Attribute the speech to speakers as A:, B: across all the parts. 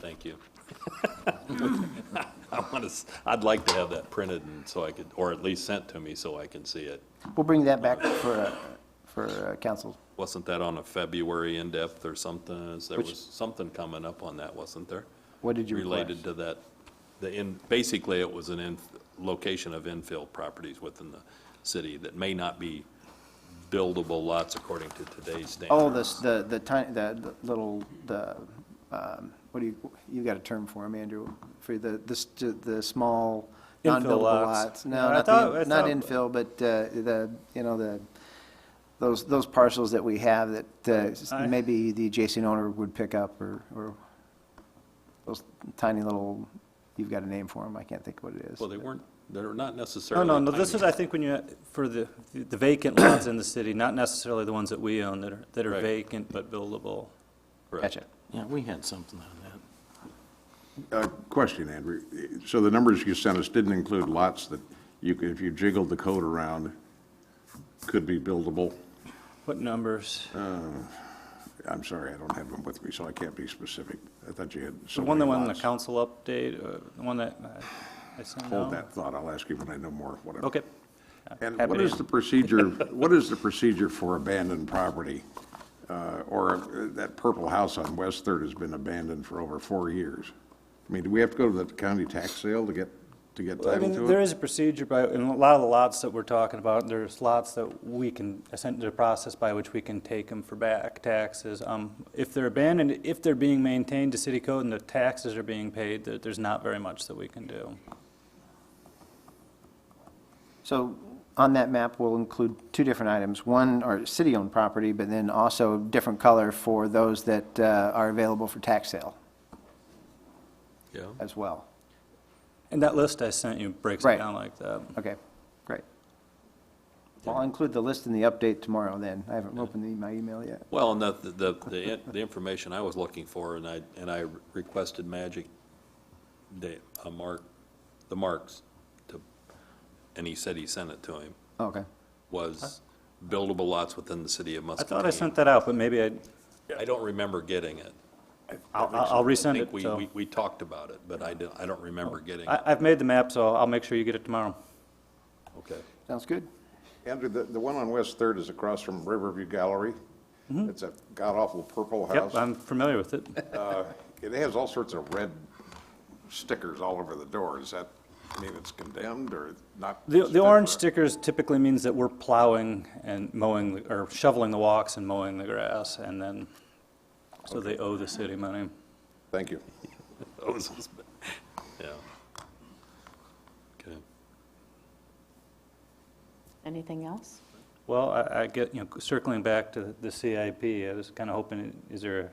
A: Thank you. I want to, I'd like to have that printed and so I could, or at least sent to me so I can see it.
B: We'll bring that back for, uh, for uh, council.
A: Wasn't that on a February in-depth or something? There
B: Which-
A: was something coming up on that, wasn't there?
B: What did you
A: Related to that, the in, basically it was an in, location of infill properties within the city that may not be buildable lots according to today's standards.
B: Oh, this, the, the tiny, the the little, the, um, what do you, you got a term for them, Andrew? For the, this, the small,
C: Infill
B: non-buildable
C: lots.
B: lots?
C: Yeah,
B: No,
C: I
B: not,
C: thought- I
B: the- not
C: thought-
B: infill, but uh, the, you know, the, those, those parcels that we have that uh, s-
C: I-
B: maybe the adjacent owner would pick up or, or those tiny little, you've got a name for them, I can't think what it is.
A: Well, they weren't, they're not
C: No,
A: necessarily.
C: no, no, this
A: tiny.
C: is, I think, when you, for the, the vacant lots in the city, not necessarily the ones that we own that are, that are
A: Right.
C: vacant but buildable.
A: Correct.
B: Gotcha.
D: Yeah, we had something on that.
E: Uh, Question, Andrew. So the numbers you sent us didn't include lots that you, could- if you jiggled the code around, could be buildable?
C: What numbers?
E: Uh, I'm sorry, I don't have them with me, so I can't be specific. I thought you had
C: The
E: so
C: one
E: many
C: that went in the
E: lots.
C: council update, uh, the one that uh, I sent out?
E: Hold that thought. I'll ask you when I know more, whatever.
C: Okay.
E: And
C: Happy
E: what
C: to.
E: is the procedure, what is the procedure for abandoned property? Uh, Or uh, that purple house on West Third has been abandoned for over four years. I mean, do we have to go to the county tax sale to get, to get
C: I
E: title
C: mean,
E: to it?
C: there is a procedure by, in a lot of the lots that we're talking about, there's lots that we can, essentially, the process by which we can take them for back taxes. Um, If they're abandoned, if they're being maintained to city code and the taxes are being paid, there- there's not very much that we can do.
B: So on that map, we'll include two different items. One are city-owned property, but then also different color for those that uh, are available for tax sale
A: Yeah.
B: as well.
C: And that list I sent you breaks it
B: Right.
C: down like that.
B: Okay, great. Well, I'll include the list in the update tomorrow then. I haven't opened the- my email yet.
A: Well, and the, the, the, the information I was looking for, and I, and I requested Magic, the, uh, mark, the marks to, and he said he sent it to him,
B: Oh, Okay.
A: was buildable lots within the city of
C: I
A: Muscatine.
C: thought I sent that out, but maybe I,
A: I don't remember getting it.
C: I'll, I'll resend
A: I think
C: it,
A: we,
C: so. Oh,
A: we, we talked about it, but I don't, I don't remember getting
C: I,
A: it.
C: I've made the map, so I'll make sure you get it tomorrow.
A: Okay.
B: Sounds good.
E: Andrew, the, the one on West Third is across from Riverview Gallery. It's a god-awful purple house.
C: Mm-hmm. Yep, I'm familiar with it.
E: Uh, It has all sorts of red stickers all over the door. Does that mean it's condemned or not?
C: The,
E: fit
C: the
E: for-
C: orange stickers typically means that we're plowing and mowing, the- or shoveling the walks and mowing the grass, and then, so they owe the city money.
E: Thank you.
A: That was his- Yeah. Okay.
F: Anything else?
C: Well, I, I get, you know, circling back to the CIP, I was kind of hoping, is there a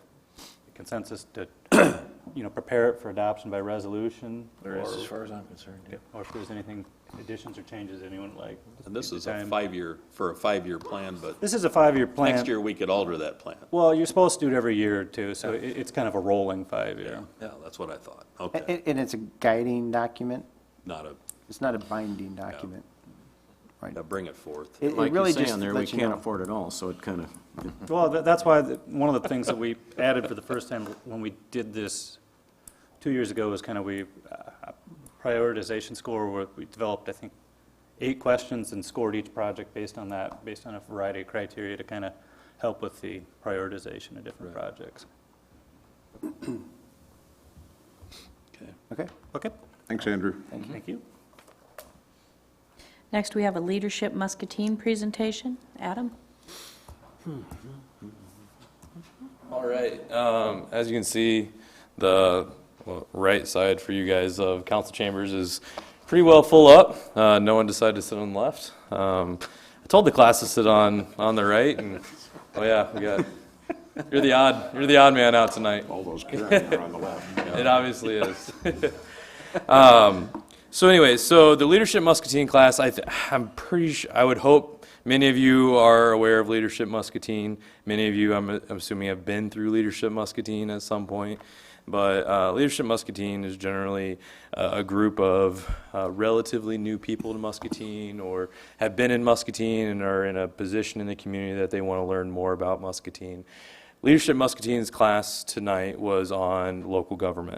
C: consensus to, you know, prepare it for adoption by resolution?
D: There is,
C: Or-
D: as far as I'm concerned. yeah.
C: Or if there's anything, additions or changes anyone would like?
A: And this
C: Take the
A: is a
C: time.
A: five-year, for a five-year plan, but
C: This is a five-year plan.
A: next year we could alter that plan.
C: Well, you're supposed to do it every year, too, so it, it's kind of a rolling five-year.
A: Yeah, that's what I thought.
B: A-
A: Okay.
B: a- And it's a guiding document.
A: Not a,
B: It's not a binding document. Right.
A: now bring it forth.
B: It- It
D: Like you
B: really
D: say
B: just
D: on there, we
B: lets you
D: can't
B: know.
D: afford it all, so it kind of,
C: Well, tha- that's why, the- one of the things that we added for the first time when we did this two years ago was kind of we, uh, prioritization score, where we developed, I think, eight questions and scored each project based on that, based on a variety of criteria to kind of help with the prioritization of different projects.
A: Okay.
B: Okay,
C: Okay,
E: Thanks, Andrew.
C: thank you.
F: Next, we have a Leadership Muscatine presentation. Adam?
G: All right, um, as you can see, the well, right side for you guys of council chambers is pretty well full up. Uh, no one decided to sit on the left. Um, I told the class to sit on, on the right and, oh yeah, we got, you're the odd, you're the odd man out tonight.
E: All those Karen are on the left.
G: It obviously is. um, so anyway, so the leadership muscatine class, I th- I'm pretty sure, I would hope many of you are aware of leadership muscatine. Many of you, I'm, I'm assuming, have been through leadership muscatine at some point. But uh, leadership muscatine is generally uh, a group of uh, relatively new people to muscatine or have been in muscatine and are in a position in the community that they want to learn more about muscatine. Leadership Muscatine's class tonight was on local government.